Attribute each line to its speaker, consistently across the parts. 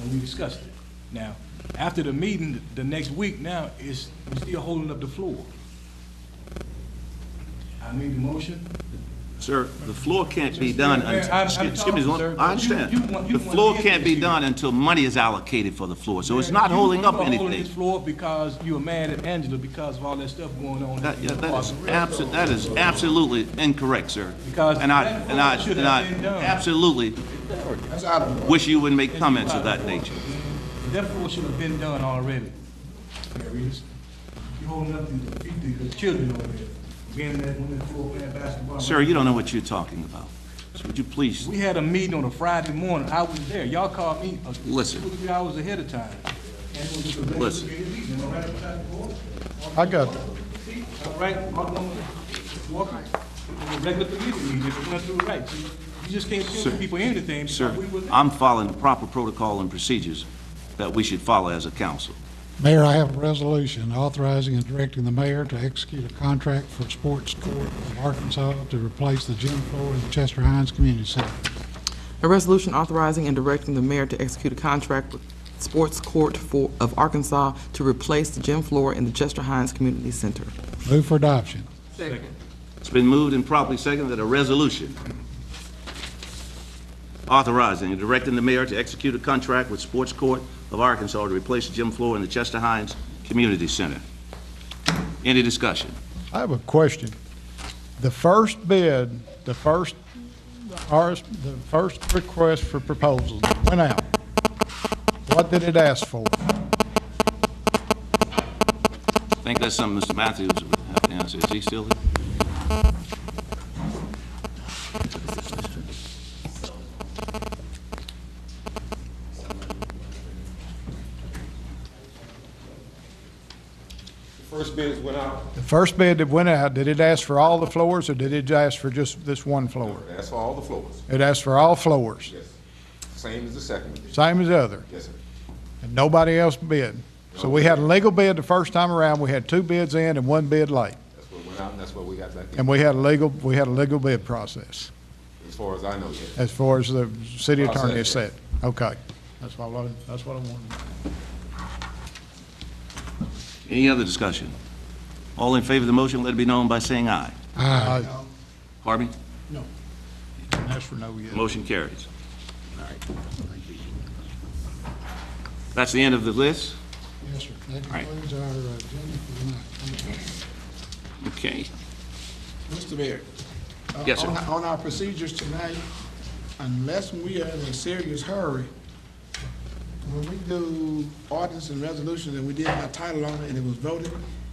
Speaker 1: and we discussed it. Now, after the meeting, the next week now, is we're still holding up the floor. I made the motion.
Speaker 2: Sir, the floor can't be done
Speaker 1: Mayor,
Speaker 2: until,
Speaker 1: I'm- I'm
Speaker 2: excuse
Speaker 1: talking,
Speaker 2: me,
Speaker 1: sir,
Speaker 2: one-
Speaker 1: but you-
Speaker 2: I understand.
Speaker 1: you want- you
Speaker 2: The
Speaker 1: want
Speaker 2: floor
Speaker 1: to
Speaker 2: can't be
Speaker 1: issue.
Speaker 2: done until money is allocated for the floor, so it's not
Speaker 1: You-
Speaker 2: holding
Speaker 1: you
Speaker 2: up
Speaker 1: are holding this
Speaker 2: anything.
Speaker 1: floor because you were mad at Angela because of all that stuff going on.
Speaker 2: That, yeah,
Speaker 1: in
Speaker 2: that
Speaker 1: Park
Speaker 2: is
Speaker 1: and Rec.
Speaker 2: abso, that is absolutely incorrect, sir.
Speaker 1: Because
Speaker 2: And I,
Speaker 1: that
Speaker 2: and I,
Speaker 1: vote should
Speaker 2: and I
Speaker 1: have been done.
Speaker 2: absolutely
Speaker 3: That's out of order.
Speaker 2: wish you would make comments of that nature.
Speaker 1: That floor should have been done already. There is. You holding up the, the- the children over there, being that when the floor playing basketball.
Speaker 2: Sir, you don't know what you're talking about. So would you please,
Speaker 1: We had a meeting on a Friday morning, I was there, y'all called me uh, two, or
Speaker 2: Listen.
Speaker 1: three hours ahead of time. And it was a regular
Speaker 2: Listen.
Speaker 1: meeting, am I right about that, board?
Speaker 4: I got,
Speaker 1: See, I'm right, Alderman Walker, it was a regular committee meeting, it went through right. You you just can't tell people anything. because
Speaker 2: sir,
Speaker 1: we were there.
Speaker 2: I'm following the proper protocol and procedures that we should follow as a council.
Speaker 4: Mayor, I have a resolution authorizing and directing the mayor to execute a contract for Sports Court of Arkansas to replace the gym floor in the Chester Hines Community Center.
Speaker 5: A resolution authorizing and directing the mayor to execute a contract with Sports Court for, of Arkansas to replace the gym floor in the Chester Hines Community Center.
Speaker 4: Move for adoption.
Speaker 2: It's been moved and properly seconded that a resolution authorizing and directing the mayor to execute a contract with Sports Court of Arkansas to replace the gym floor in the Chester Hines Community Center. Any discussion?
Speaker 4: I have a question. The first bid, the first RS, the first request for proposals that went out. What did it ask for?
Speaker 2: I think that's something Mr. Matthews would have to answer. Is he still here?
Speaker 6: First bids went out,
Speaker 4: The first bid that went out, did it ask for all the floors or did it ask for just this one floor?
Speaker 6: that's for all the floors,
Speaker 4: It asked for all floors,
Speaker 6: yes. Same as the second bid,
Speaker 4: same as the other.
Speaker 6: yes, sir.
Speaker 4: and nobody else bid. So we had a legal bid the first time around, we had two bids in and one bid late,
Speaker 6: That's what went out, and that's what we got back in,
Speaker 4: and we had a legal, we had a legal bid process,
Speaker 6: as far as I know, yes.
Speaker 4: as far as the city attorney has said.
Speaker 6: Process,
Speaker 4: Okay, that's what I, wanted- that's what I wanted.
Speaker 2: Any other discussion? All in favor of the motion, let it be known by saying aye.
Speaker 4: Aye.
Speaker 2: Harvey?
Speaker 4: No. That's for no yet.
Speaker 2: Motion carries. That's the end of the list?
Speaker 4: Yes, sir. That
Speaker 2: right.
Speaker 4: concludes our uh, agenda for tonight. Thank you.
Speaker 2: Okay.
Speaker 3: Mr. Mayor. uh,
Speaker 2: Yes, sir.
Speaker 3: on- On our procedures tonight, unless we are in a serious hurry, when we do ordinance and resolutions, and we did by title only, and it was voted,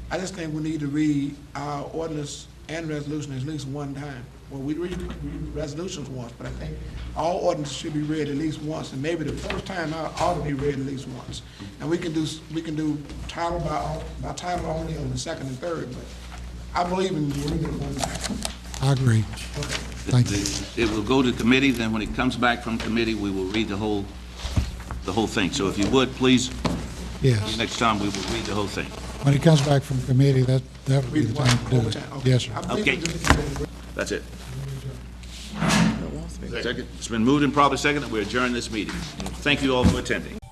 Speaker 3: I just think we need to read our ordinance and resolution at least one time. Well, we read read resolutions once, but I think all ordinances should be read at least once, and maybe the first time out ought to be read at least once. And we can do, s- we can do title by, by title only on the second and third, but I believe in reading it one time.
Speaker 4: I agree. Thank you.
Speaker 2: It will go to committee, then when it comes back from committee, we will read the whole, the whole thing. So if you would, please,
Speaker 4: Yes.
Speaker 2: next time, we will read the whole thing.
Speaker 4: When it comes back from committee, that, that would be
Speaker 3: Read
Speaker 4: the
Speaker 3: one
Speaker 4: time to do
Speaker 3: one
Speaker 4: it.
Speaker 3: time.
Speaker 4: Yes, sir.
Speaker 3: I believe in
Speaker 2: Okay.
Speaker 3: doing it.
Speaker 2: That's it. Second, it's been moved and probably second that we adjourn this meeting. Thank you all for attending.